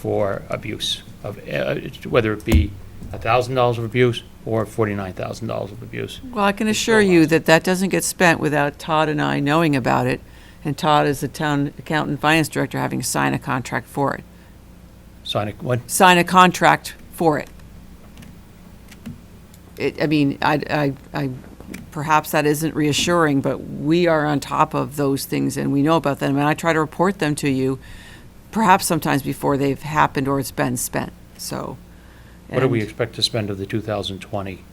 for abuse of, uh, whether it be $1,000 of abuse or $49,000 of abuse. Well, I can assure you that that doesn't get spent without Todd and I knowing about it, and Todd is the town accountant and finance director having to sign a contract for it. Sign a, what? Sign a contract for it. It, I mean, I, I, I, perhaps that isn't reassuring, but we are on top of those things and we know about them, and I try to report them to you, perhaps sometimes before they've happened or it's been spent, so. What do we and- expect to spend of the 2020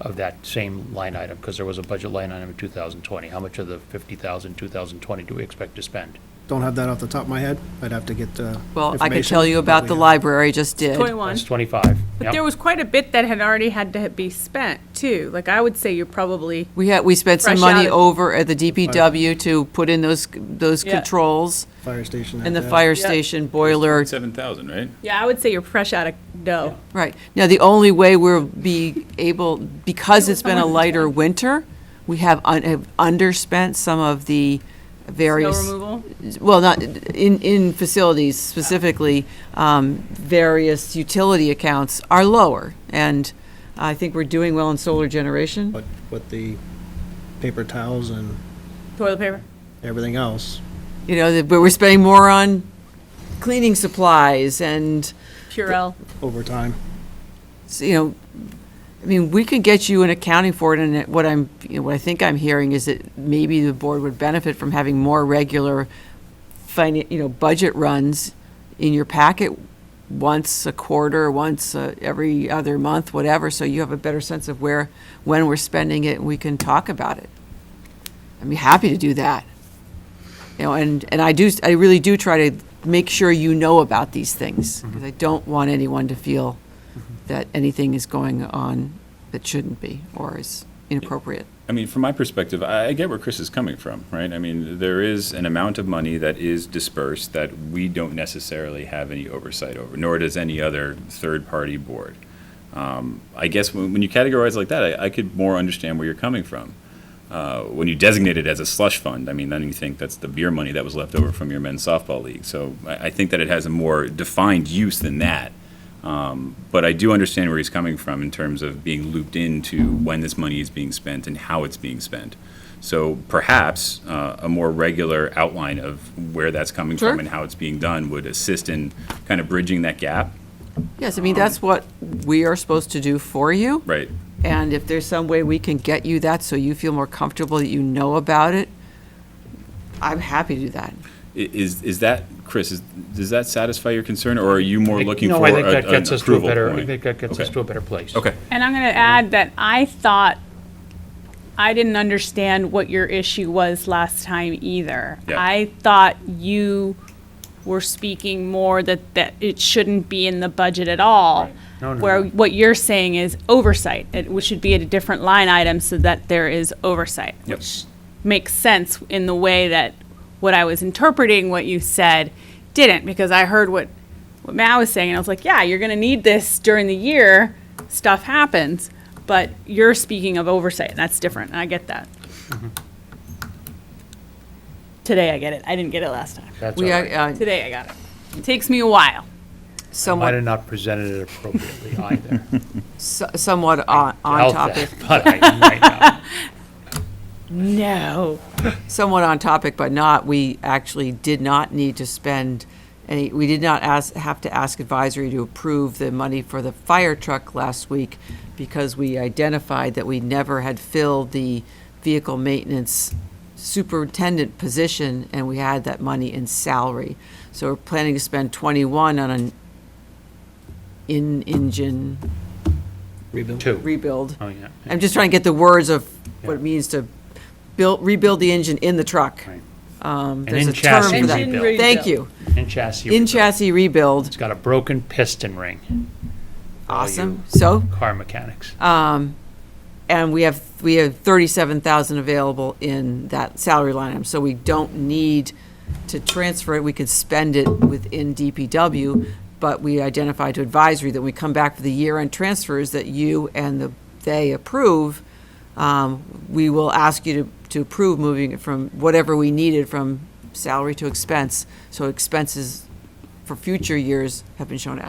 of that same line item? Because there was a budget line item in 2020. How much of the 50,000, 2020 do we expect to spend? Don't have that off the top of my head. I'd have to get, uh. Well, I could information tell you about that the we have. library, just did. 21. That's 25. But Yep. there was quite a bit that had already had to be spent, too. Like, I would say you're probably, We had, we spent some Fresh money out of- over at the DPW to put in those, those Yeah. controls Fire station. and the had that. fire Yeah. station boiler. Seven thousand, right? yeah, I would say you're fresh out of dough. Right. Now, the only way we'll be able, because Yeah, it's been a someone- lighter winter, we have un- have underspent some of the Snow various. removal. well, not, in, in facilities specifically, um, various utility accounts are lower. And I think we're doing well in solar generation. But with the paper towels and Toilet paper. everything else, You know, that- but we're spending more on cleaning supplies and, Purell. over time. s- you know, I mean, we could get you an accounting for it, and it- what I'm, you know, what I think I'm hearing is that maybe the board would benefit from having more regular finan, you know, budget runs in your packet once a quarter, once uh, every other month, whatever, so you have a better sense of where, when we're spending it, and we can talk about it. I'd be happy to do that. You know, and, and I do, I really do try to make sure you know about these things, because I don't want anyone to feel that anything is going on that shouldn't be or is inappropriate. I mean, from my perspective, I I get where Chris is coming from, right? I mean, there is an amount of money that is dispersed that we don't necessarily have any oversight over, nor does any other third-party board. Um, I guess when, when you categorize like that, I, I could more understand where you're coming from. Uh, when you designate it as a slush fund, I mean, then you think that's the beer money that was left over from your men's softball league. So I, I think that it has a more defined use than that. Um, but I do understand where he's coming from in terms of being looped into when this money is being spent and how it's being spent. So perhaps uh, a more regular outline of where that's coming Sure. from and how it's being done would assist in kind of bridging that gap. Yes, I mean, that's Um, what we are supposed to do for you. Right. And if there's some way we can get you that so you feel more comfortable that you know about it, I'm happy to do that. I- Is is that Chris? Is, does that satisfy your concern, or are you more looking No, for I think a- that an gets us to a approval better, I point? think that gets us Okay. to a better place. Okay. And I'm going to add that I thought, I didn't understand what your issue was last time either. Yeah. I thought you were speaking more that, that it shouldn't be in the budget at all. Right. No, no, Where no. what you're saying is oversight, it we should be at a different line item so that there is oversight. Yep. Which makes sense in the way that what I was interpreting what you said didn't, because I heard what what Matt was saying, and I was like, yeah, you're going to need this during the year. Stuff happens, but you're speaking of oversight, and that's different. And I get that. Today I get it. I didn't get it last time. That's all We are, right. uh, Today I got it. It takes me a while. Might somewhat, have not presented it appropriately either. so- somewhat on on Doubt topic, that, But I might not. No. somewhat on topic, but not, we actually did not need to spend any, we did not ask, have to ask advisory to approve the money for the fire truck last week because we identified that we never had filled the vehicle maintenance superintendent position and we had that money in salary. So we're planning to spend 21 on an in-engine Rebuild. Two. rebuild. Oh, yeah. I'm just trying to get the words of what it Yeah. means to build, rebuild the engine in the truck. Right. Um, An There's a term in-chassis for that. Engine rebuild. Thank you. In chassis. In rebuild. chassis It's rebuild. got a broken piston ring. All you Awesome. So, Car mechanics. Um, and we have, we have 37,000 available in that salary line item. So we don't need to transfer it. We could spend it within DPW. But we identified to advisory that when we come back for the year-end transfers that you and the, they approve, um, we will ask you to, to approve moving it from whatever we needed from salary to expense. So expenses for future years have been shown to